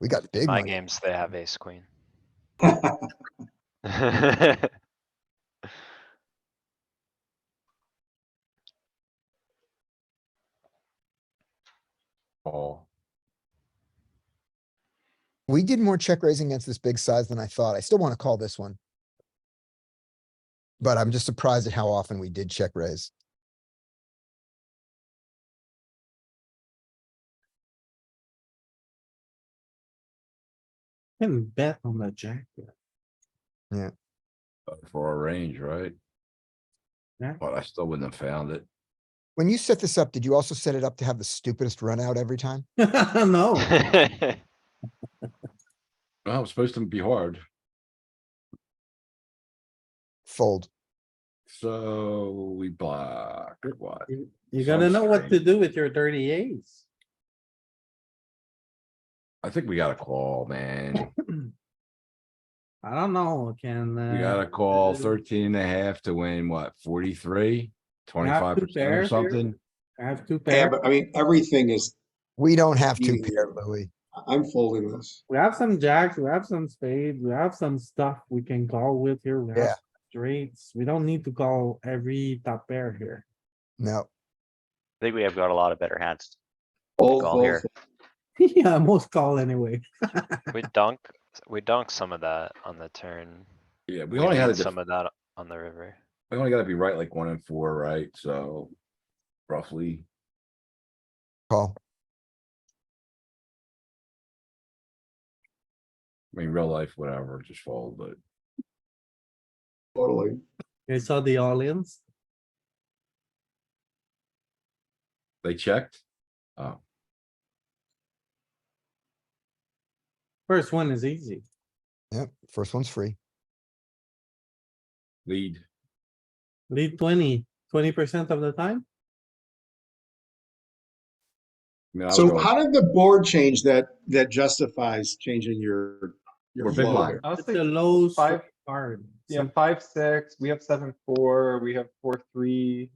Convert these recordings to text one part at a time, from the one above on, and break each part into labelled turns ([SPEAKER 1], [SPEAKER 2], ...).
[SPEAKER 1] We got big
[SPEAKER 2] My
[SPEAKER 1] money.
[SPEAKER 2] games, they have ace queen.
[SPEAKER 3] Well,
[SPEAKER 4] Call.
[SPEAKER 1] We did more check raising against this big size than I thought. I still want to call this one. But I'm just surprised at how often we did check raise.
[SPEAKER 3] Can bet on the jack. here.
[SPEAKER 4] uh, for our range, right?
[SPEAKER 3] Yeah.
[SPEAKER 4] But I still wouldn't have found it.
[SPEAKER 1] When you set this up, did you also set it up to have the stupidest run out every time?
[SPEAKER 3] No,
[SPEAKER 4] Well, it's supposed to be hard,
[SPEAKER 1] Fold.
[SPEAKER 4] so we block it wide.
[SPEAKER 3] you you gotta know what to do with your dirty eights.
[SPEAKER 4] I think we got a call, man.
[SPEAKER 3] I don't know, can.
[SPEAKER 4] We
[SPEAKER 3] uh,
[SPEAKER 4] got a call
[SPEAKER 3] uh,
[SPEAKER 4] 13 and a half to win, what, 43, 25 percent
[SPEAKER 3] pairs
[SPEAKER 4] or
[SPEAKER 3] here.
[SPEAKER 4] something?
[SPEAKER 3] I have two
[SPEAKER 5] Yeah,
[SPEAKER 3] pair.
[SPEAKER 5] but I mean, everything is,
[SPEAKER 1] We don't have two
[SPEAKER 5] Yeah.
[SPEAKER 1] pair, Louis.
[SPEAKER 5] I'm folding this.
[SPEAKER 3] We have some jacks, we have some spades, we have some stuff we can call with here. We
[SPEAKER 1] Yeah.
[SPEAKER 3] have straights. We don't need to call every top pair here.
[SPEAKER 1] No,
[SPEAKER 6] think we have got a lot of better hands.
[SPEAKER 5] Fold,
[SPEAKER 6] Call
[SPEAKER 5] fold,
[SPEAKER 6] here.
[SPEAKER 5] fold.
[SPEAKER 3] Yeah, most call anyway.
[SPEAKER 2] We dunk, we dunk some of that on the turn.
[SPEAKER 4] Yeah, we only had a
[SPEAKER 2] lead
[SPEAKER 4] def-
[SPEAKER 2] Some of that on the river.
[SPEAKER 4] We only gotta be right like one and four, right? So roughly,
[SPEAKER 1] call.
[SPEAKER 4] I mean, real life, whatever, just fold, but
[SPEAKER 5] Totally.
[SPEAKER 3] You saw the audience?
[SPEAKER 4] they checked. Oh,
[SPEAKER 3] First one is easy.
[SPEAKER 1] Yep, first one's free.
[SPEAKER 4] lead.
[SPEAKER 3] Lead 20, 20 percent of the time?
[SPEAKER 4] I mean, I would
[SPEAKER 5] So
[SPEAKER 4] go-
[SPEAKER 5] how did the board change that, that justifies changing your, your
[SPEAKER 4] We're big
[SPEAKER 5] flow
[SPEAKER 4] blind.
[SPEAKER 5] here?
[SPEAKER 7] I was
[SPEAKER 3] It's a
[SPEAKER 7] thinking
[SPEAKER 3] low
[SPEAKER 7] five,
[SPEAKER 3] card.
[SPEAKER 7] yeah, five, six, we have seven, four, we have four, three.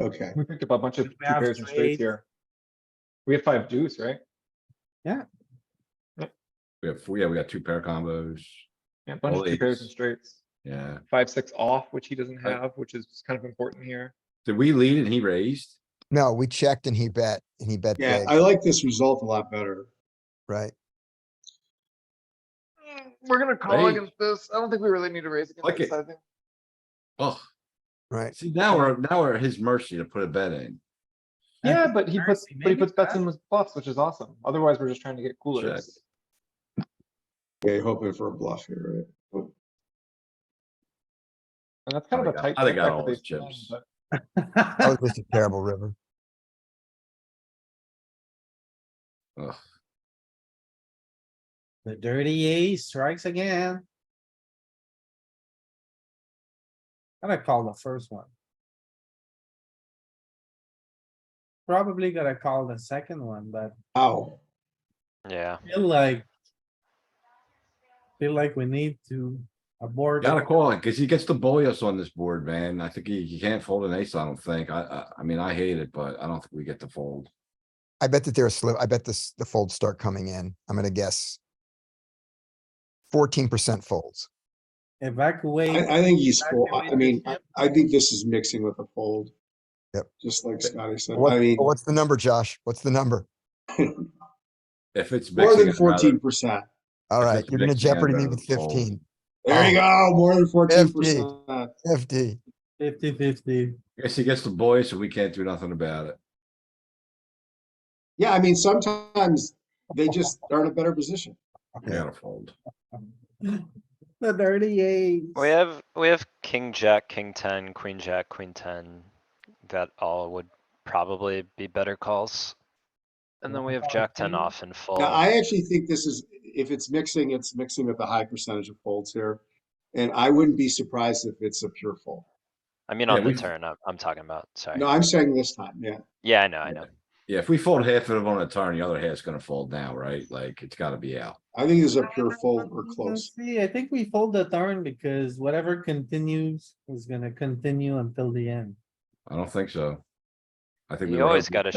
[SPEAKER 5] Okay,
[SPEAKER 7] We picked up a bunch of
[SPEAKER 3] We
[SPEAKER 7] two
[SPEAKER 3] have
[SPEAKER 7] pairs and
[SPEAKER 3] straights.
[SPEAKER 7] straights here. We have five deuce, right?
[SPEAKER 4] We have, four- yeah, we got two pair combos.
[SPEAKER 7] Yeah, a bunch of two pairs and
[SPEAKER 4] Eights.
[SPEAKER 7] straights.
[SPEAKER 4] Yeah.
[SPEAKER 7] Five, six off, which he doesn't
[SPEAKER 4] Right.
[SPEAKER 7] have, which is kind of important here.
[SPEAKER 4] Did we lead and he raised?
[SPEAKER 1] No, we checked and he bet and he bet
[SPEAKER 5] yeah,
[SPEAKER 1] big,
[SPEAKER 5] I like this result a lot better.
[SPEAKER 1] right?
[SPEAKER 7] Mm, We're gonna
[SPEAKER 4] call Right. against
[SPEAKER 7] this. I don't think we really need to raise
[SPEAKER 4] Like this it.
[SPEAKER 7] sizing.
[SPEAKER 4] Oh,
[SPEAKER 1] Right.
[SPEAKER 4] see, now we're, now we're at his mercy to put a bet in.
[SPEAKER 7] Yeah, but he puts,
[SPEAKER 3] Apparently,
[SPEAKER 7] but he
[SPEAKER 3] maybe
[SPEAKER 7] puts bets
[SPEAKER 3] that's-
[SPEAKER 7] in with bluffs, which is awesome. Otherwise, we're just trying to get
[SPEAKER 4] Check.
[SPEAKER 7] coolers.
[SPEAKER 5] Okay, hoping for a bluff here, right?
[SPEAKER 7] And that's kind
[SPEAKER 4] I
[SPEAKER 7] of a
[SPEAKER 4] got-
[SPEAKER 7] tight.
[SPEAKER 4] I
[SPEAKER 7] check
[SPEAKER 4] got
[SPEAKER 7] back
[SPEAKER 4] all
[SPEAKER 7] with
[SPEAKER 4] his
[SPEAKER 7] ace ten,
[SPEAKER 4] chips.
[SPEAKER 7] but
[SPEAKER 1] That
[SPEAKER 3] Oh,
[SPEAKER 1] was just a terrible river.
[SPEAKER 4] Ugh,
[SPEAKER 3] The dirty ace strikes again. Gotta call the first one. Probably gotta call the second one, but
[SPEAKER 5] Ow,
[SPEAKER 2] Yeah,
[SPEAKER 3] feel like. Feel like we need to abort.
[SPEAKER 4] Gotta call it, cause he gets to bully us on this board, man. I think he, he can't fold an ace, I don't think. I, I, I mean, I hate it, but I don't think we get to fold.
[SPEAKER 1] I bet that they're slim. I bet this, the folds start coming in. I'm gonna guess. Fourteen percent folds.
[SPEAKER 3] Evacuate.
[SPEAKER 5] I, I think he's, full- I I
[SPEAKER 3] Evacuate
[SPEAKER 5] mean,
[SPEAKER 3] the
[SPEAKER 5] I,
[SPEAKER 3] ship.
[SPEAKER 5] I think this is mixing with a fold.
[SPEAKER 1] Yep.
[SPEAKER 5] Just like Scotty said,
[SPEAKER 1] What-
[SPEAKER 5] I mean,
[SPEAKER 1] what's the number, Josh? What's the number?
[SPEAKER 4] If it's. mixing,
[SPEAKER 5] more than
[SPEAKER 4] I'd rather-
[SPEAKER 5] fourteen percent.
[SPEAKER 1] All
[SPEAKER 4] If
[SPEAKER 1] right,
[SPEAKER 4] it's
[SPEAKER 1] you're gonna
[SPEAKER 4] mixed hand,
[SPEAKER 1] jeopardy me
[SPEAKER 4] rather
[SPEAKER 1] with
[SPEAKER 4] than fold.
[SPEAKER 1] fifteen.
[SPEAKER 5] There you go, more than fourteen percent.
[SPEAKER 1] FD.
[SPEAKER 3] Fifty fifty.
[SPEAKER 4] Guess he gets to bully, us, so we can't do nothing about it.
[SPEAKER 5] Yeah, I mean, sometimes they just are in a better position.
[SPEAKER 4] We gotta fold.
[SPEAKER 3] The dirty E. ace.
[SPEAKER 2] we have, we have king, jack, king ten, queen, jack, queen ten. That all would probably be better calls. And then we have jack ten off and full.
[SPEAKER 5] Now, I actually think this is, if it's mixing, it's mixing with a high percentage of folds here. And I wouldn't be surprised if it's a pure fold.
[SPEAKER 2] I mean,
[SPEAKER 4] Yeah,
[SPEAKER 2] on the
[SPEAKER 4] we've-
[SPEAKER 2] turn, I'm, I'm talking about, sorry.
[SPEAKER 5] No, I'm saying this time, yeah.
[SPEAKER 2] Yeah, I know, I know.
[SPEAKER 4] Yeah, if we fold half of it on a turn, the other half's gonna fold now, right? Like, it's gotta be out.
[SPEAKER 5] I think there's a
[SPEAKER 3] I
[SPEAKER 5] pure
[SPEAKER 3] don't
[SPEAKER 5] fold or
[SPEAKER 3] Let's
[SPEAKER 5] close.
[SPEAKER 3] See, I think we fold the turn because whatever continues is gonna continue until the end.
[SPEAKER 4] I don't think so. I think. we
[SPEAKER 2] You
[SPEAKER 4] were
[SPEAKER 2] always
[SPEAKER 4] hoping-
[SPEAKER 2] gotta